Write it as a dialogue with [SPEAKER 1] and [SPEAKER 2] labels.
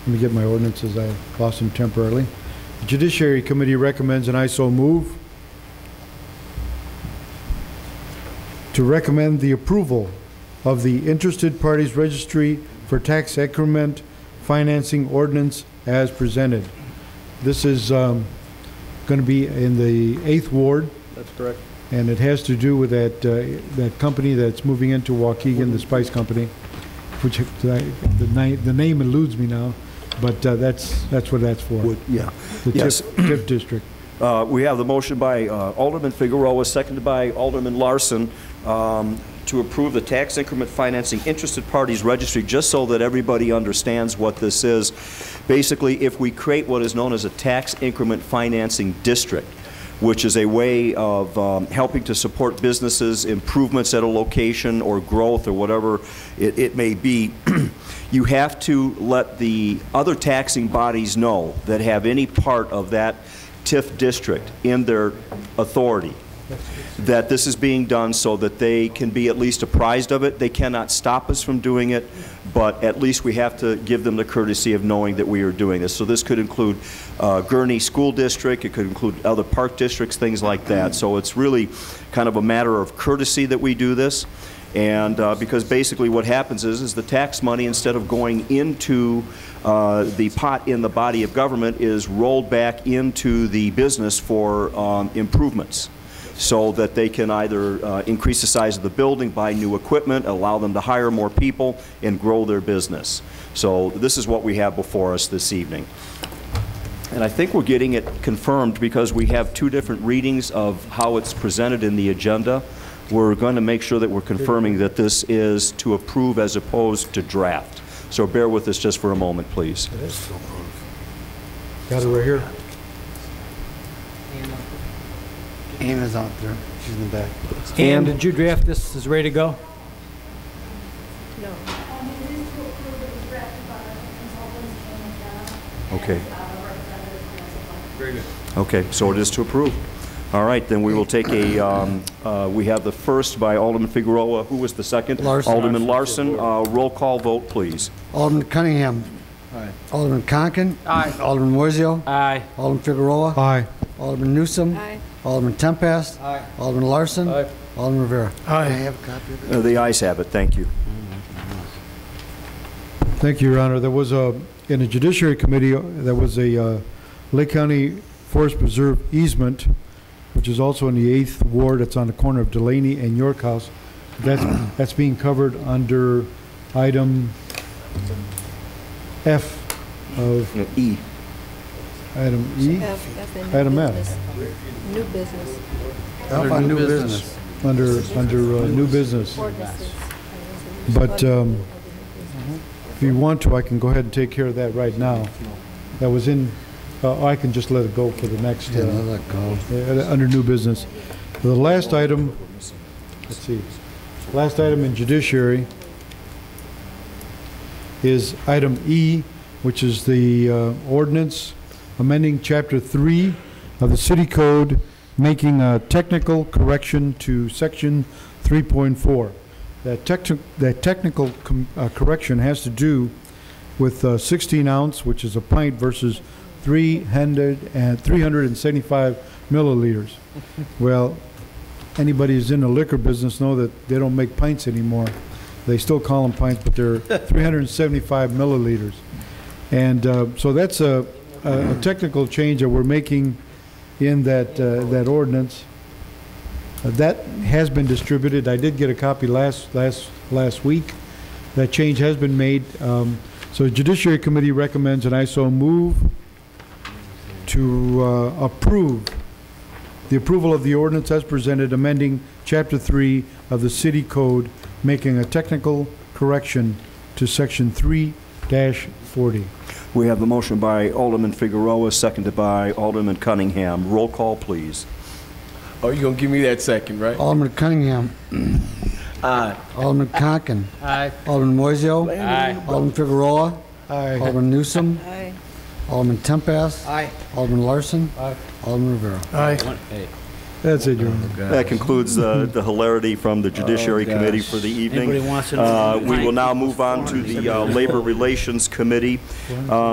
[SPEAKER 1] Let me get my ordinances, I lost them temporarily. Judiciary Committee recommends, and I so move, to recommend the approval of the Interested Parties Registry for Tax Increment Financing Ordinance as presented. This is going to be in the 8th Ward,
[SPEAKER 2] That's correct.
[SPEAKER 1] and it has to do with that, uh, that company that's moving into Waukegan, the Spice Company, which, I- the ni- the name eludes me now, but uh, that's, that's what that's for,
[SPEAKER 2] Would, yeah.
[SPEAKER 1] the
[SPEAKER 2] yes.
[SPEAKER 1] TIP TIP district.
[SPEAKER 2] Uh, We have the motion by uh, Alderman Figueroa, seconded by Alderman Larson, um, to approve the tax increment financing interested parties registry, just so that everybody understands what this is. Basically, if we create what is known as a tax increment financing district, which is a way of um, helping to support businesses, improvements at a location, or growth, or whatever it it may be, you have to let the other taxing bodies know that have any part of that TIF district in their authority, that this is being done so that they can be at least apprised of it. They cannot stop us from doing it, but at least we have to give them the courtesy of knowing that we are doing this. So this could include uh, Gurnee School District, it could include other park districts, things like that. So it's really kind of a matter of courtesy that we do this. And uh, because basically what happens is, is the tax money, instead of going into uh, the pot in the body of government, is rolled back into the business for um, improvements, so that they can either uh, increase the size of the building, buy new equipment, allow them to hire more people, and grow their business. So this is what we have before us this evening. And I think we're getting it confirmed because we have two different readings of how it's presented in the agenda. We're going to make sure that we're confirming that this is to approve as opposed to draft. So bear with us just for a moment, please.
[SPEAKER 1] Got it right here.
[SPEAKER 3] Anna's out there. She's in the back.
[SPEAKER 4] Ann, did you draft this, is ready to go?
[SPEAKER 2] Okay. Okay, so it is to approve. All right, then we will take a, um, uh, we have the first by Alderman Figueroa. Who was the second?
[SPEAKER 3] Larson.
[SPEAKER 2] Alderman Larson. Uh, Roll call vote, please.
[SPEAKER 3] Alderman Cunningham. Alderman Conken. Alderman Moiseo.
[SPEAKER 4] Aye.
[SPEAKER 3] Alderman Figueroa.
[SPEAKER 1] Aye.
[SPEAKER 3] Alderman Newsom.
[SPEAKER 5] Aye.
[SPEAKER 3] Alderman Tempest. Alderman Larson. Alderman Rivera. Aye. I have a copy of it.
[SPEAKER 2] Uh, The ayes have it, thank you.
[SPEAKER 1] Thank you, Your Honor. There was a, in the Judiciary Committee, uh, there was a uh, Lake County Forest Preserve easement, which is also in the 8th Ward, it's on the corner of Delaney and York House. That's, that's being covered under item F of
[SPEAKER 2] No, E.
[SPEAKER 1] item E,
[SPEAKER 5] F, F in
[SPEAKER 1] Item F.
[SPEAKER 5] new business. New business
[SPEAKER 3] How about new business?
[SPEAKER 1] under, under uh, new business.
[SPEAKER 5] ordinances.
[SPEAKER 1] But um, if you want to, I can go ahead and take care of that right now. That was in, uh, I can just let it go for the next. uh,
[SPEAKER 3] Yeah, I'll let go.
[SPEAKER 1] Uh, under new business. The last item, let's see, last item in judiciary is item E, which is the uh, ordinance amending Chapter 3 of the City Code, making a technical correction to Section 3.4. That techni- that technical com- uh, correction has to do with uh, 16 ounce, which is a pint, versus 300 and 375 milliliters. Well, anybody who's in the liquor business know that they don't make pints anymore. They still call them pints, but they're 375 milliliters. And uh, so that's a, a a technical change that we're making in that, uh, that ordinance. Uh, That has been distributed. I did get a copy last, last, last week. That change has been made. Um, So Judiciary Committee recommends, and I so move, to uh, approve the approval of the ordinance as presented, amending Chapter 3 of the City Code, making a technical correction to Section 3-40.
[SPEAKER 2] We have the motion by Alderman Figueroa, seconded by Alderman Cunningham. Roll call, please.
[SPEAKER 6] Oh, you gonna give me that second, right?
[SPEAKER 3] Alderman Cunningham. Alderman Conken.
[SPEAKER 4] Aye.
[SPEAKER 3] Alderman Moiseo.
[SPEAKER 4] Aye.
[SPEAKER 3] Alderman Figueroa.
[SPEAKER 1] Aye.
[SPEAKER 3] Alderman Newsom.
[SPEAKER 5] Aye.
[SPEAKER 3] Alderman Tempest.
[SPEAKER 4] Aye.
[SPEAKER 3] Alderman Larson.
[SPEAKER 1] Aye.
[SPEAKER 3] Alderman Rivera.
[SPEAKER 1] That's it, Your Honor.
[SPEAKER 2] That concludes uh, the hilarity from the Judiciary Committee for the evening.
[SPEAKER 4] Anybody wants to know-
[SPEAKER 2] Uh, We will now move on to the uh, Labor Relations Committee. Uh,